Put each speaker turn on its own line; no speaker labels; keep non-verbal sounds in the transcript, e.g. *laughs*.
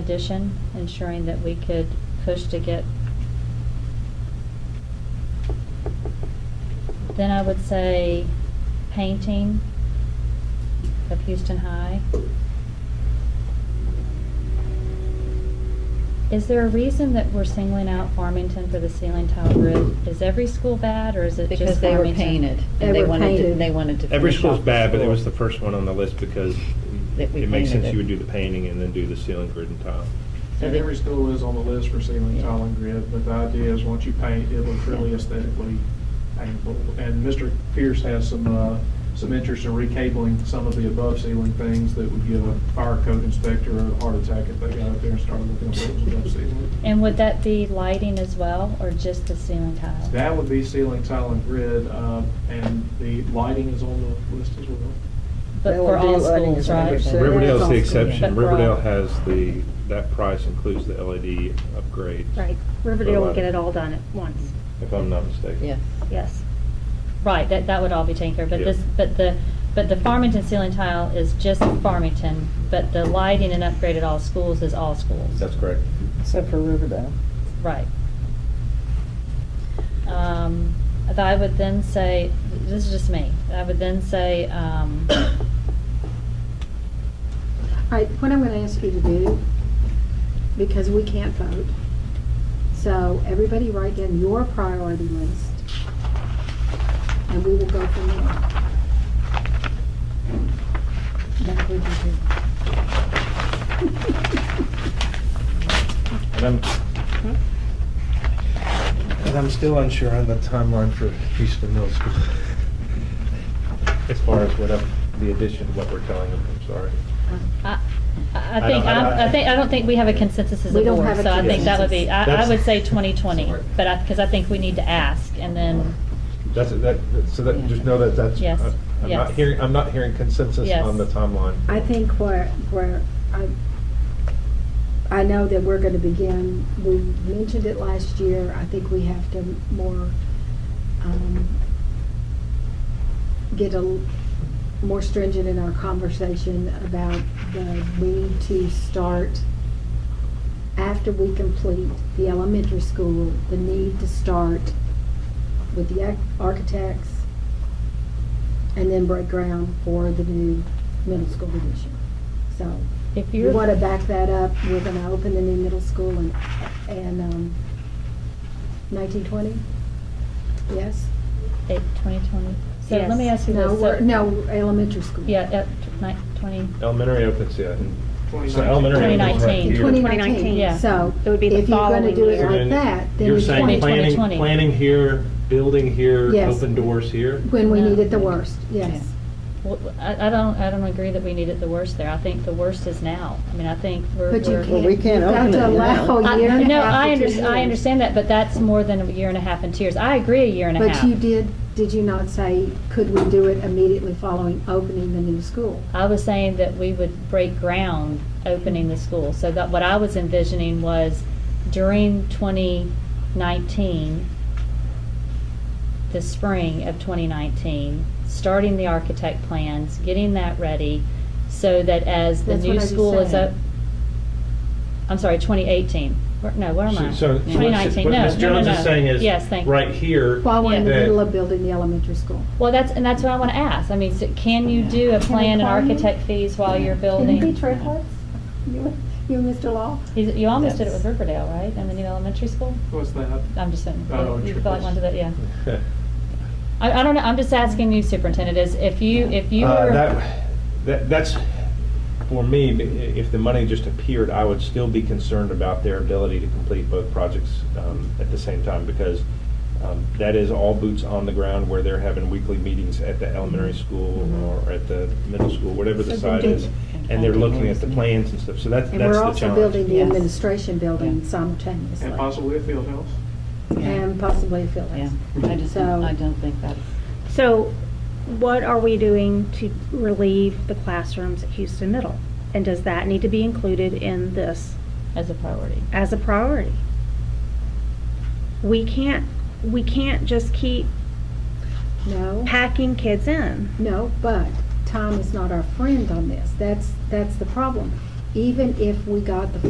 addition, ensuring that we could push to get. Then I would say painting of Houston High. Is there a reason that we're singling out Farmington for the ceiling tile grid? Is every school bad, or is it just Farmington?
Because they were painted,
They
and they
were
wanted to,
painted.
they wanted to.
Every
finish off
school's
the
bad, but it
school.
was the first one on the list because
That we
it makes
painted
sense
it.
you would do the painting and then do the ceiling grid and tile.
So
And
they-
every school is on the list for ceiling
Yeah.
tile and grid, but the idea is once you paint, it looks really aesthetically painful. And Mr. Pierce has some, uh, some interest in recabling some of the above ceiling things that would give a fire code inspector a heart attack if they got up there and started looking at what was above ceiling.
And would that be lighting as well, or just the ceiling tile?
That would be ceiling tile and grid, uh, and the lighting is on the list as well.
But
That would
for
be
all
lighting
schools,
is
right?
100%.
Riverdale's the
That's awesome.
exception.
But we're all-
Riverdale has the, that price includes the E LED upgrades.
Right, Riverdale will get it all done at once,
If I'm not mistaken.
Yes.
yes.
Right, that, that would all be taken care of, but
Yeah.
this, but the, but the Farmington ceiling tile is just Farmington, but the lighting and upgrade at all schools is all schools.
That's correct.
Except for Riverdale.
Right. Um, but I would then say, this is just me, I would then say, um,
All right, what I'm going to ask you to do, because we can't vote, so everybody write down your priority list, and we will go from there. That's what you do.
And I'm,
And I'm still unsure on the timeline for Houston Middle School.
as far as what I'm, the addition, what we're telling them, I'm sorry.
*laughs*
I, I
I
think,
don't- I don't-
I'm- I think, I don't think we have a consensus as a
We don't have
board,
a
so I think that would be, I, I
That's-
would say twenty twenty, but I, because I think we need to ask, and then,
That's, that, so that, just know that that's.
Yes,
I'm- I'm not
yes.
hearing, I'm not hearing consensus
Yes.
on the timeline.
I think where, where, I, I know that we're gonna begin, we mentioned it last year, I think we have to more, um, get a, l- more stringent in our conversation about the, we need to start, after we complete the elementary school, the need to start with the ac- architects and then break ground for the new middle school addition. So
if
you
you're.
want to back that up, we're going to open the new middle school in, in um, 1920? Yes?
Eight, twenty twenty. So let me
Yes.
ask you this.
No,
so-
we're- no, elementary school.
Yeah, at nine, twenty,
Elementary opens, yeah. and- So
2019.
elementary opens right
2019.
here.
2019.
Yeah.
So
It would be the
if you're going to
following
do it
year.
So
like
then
that, then
You're
it's
saying
2020.
planning,
2020.
planning here, building here,
Yes.
open doors here?
When we
No.
need it the worst, yes.
Well, I, I don't, I don't agree that we need it the worst there. I think the worst is now. I mean, I think we're.
But you
we're-
can't.
Well, we can't open it
You've got to
now.
allow
I-
a year and a
No,
half
I
to two
under, I
years.
understand that, but that's more than a year and a half in tiers. I agree, a year and a half.
But you did, did you not say, could we do it immediately following opening the new school?
I was saying that we would break ground opening the school. So that, what I was envisioning was during 2019, the spring of 2019, starting the architect plans, getting that ready, so that as the
That's what I
new
just
school is
said.
up. I'm sorry, 2018. Where- No, where am I?
So- so what-
2019,
What
no,
Ms.
no, no,
Jones
no.
is saying is.
Yes, thank you.
Right here. *laughs*
While we're in the
that-
middle of building the elementary school.
Well, that's, and that's what I want to ask. I mean, so can you do a
Can we
plan and
call you?
architect fees while you're building?
Can you be triplets? You, you and Mr. Law?
You you almost did it
That's-
with Riverdale, right, in the new elementary school?
What's that?
I'm just saying,
Oh,
you feel like one to that, yeah.
Yeah.
I, I don't know, I'm just asking you, Superintendent, is if you, if you
Uh,
were,
that- That, that's, for me, i- if the money just appeared, I would still be concerned about their ability to complete both projects um, at the same time, because um, that is all boots on the ground where they're having weekly meetings at the elementary school or at the middle school, whatever the
Mm-hmm. So they
site
do-
is, and they're looking at the plans and stuff, so that's,
And
that's
we're
the
also building
challenge.
the
Yes.
administration building
Yeah.
simultaneously.
And possibly a field house.
And possibly a field
Yeah,
house.
I just, don't- I don't think that's.
So what are we doing to relieve the classrooms at Houston Middle? And does that need to be included in this
as a priority.
as a priority? We can't, we can't just keep
No,
packing kids in.
no, but time is not our friend on this. That's, that's the problem. Even if we got the